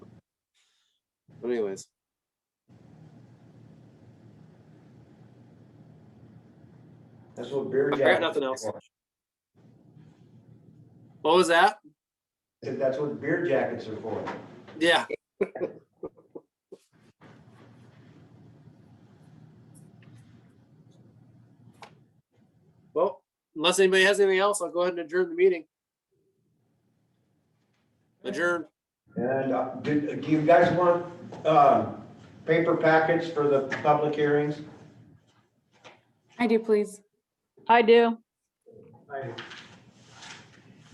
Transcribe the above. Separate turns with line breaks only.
But anyways,
That's what beer
I got
jackets.
nothing else.
are.
what was that?
If That's what beer jackets are for.
Yeah. Well, unless anybody has anything else, I'll go ahead and adjourn the meeting. Adjourn.
And uh, do, do you guys want, uh, paper packets for the public hearings?
I do, please.
I do.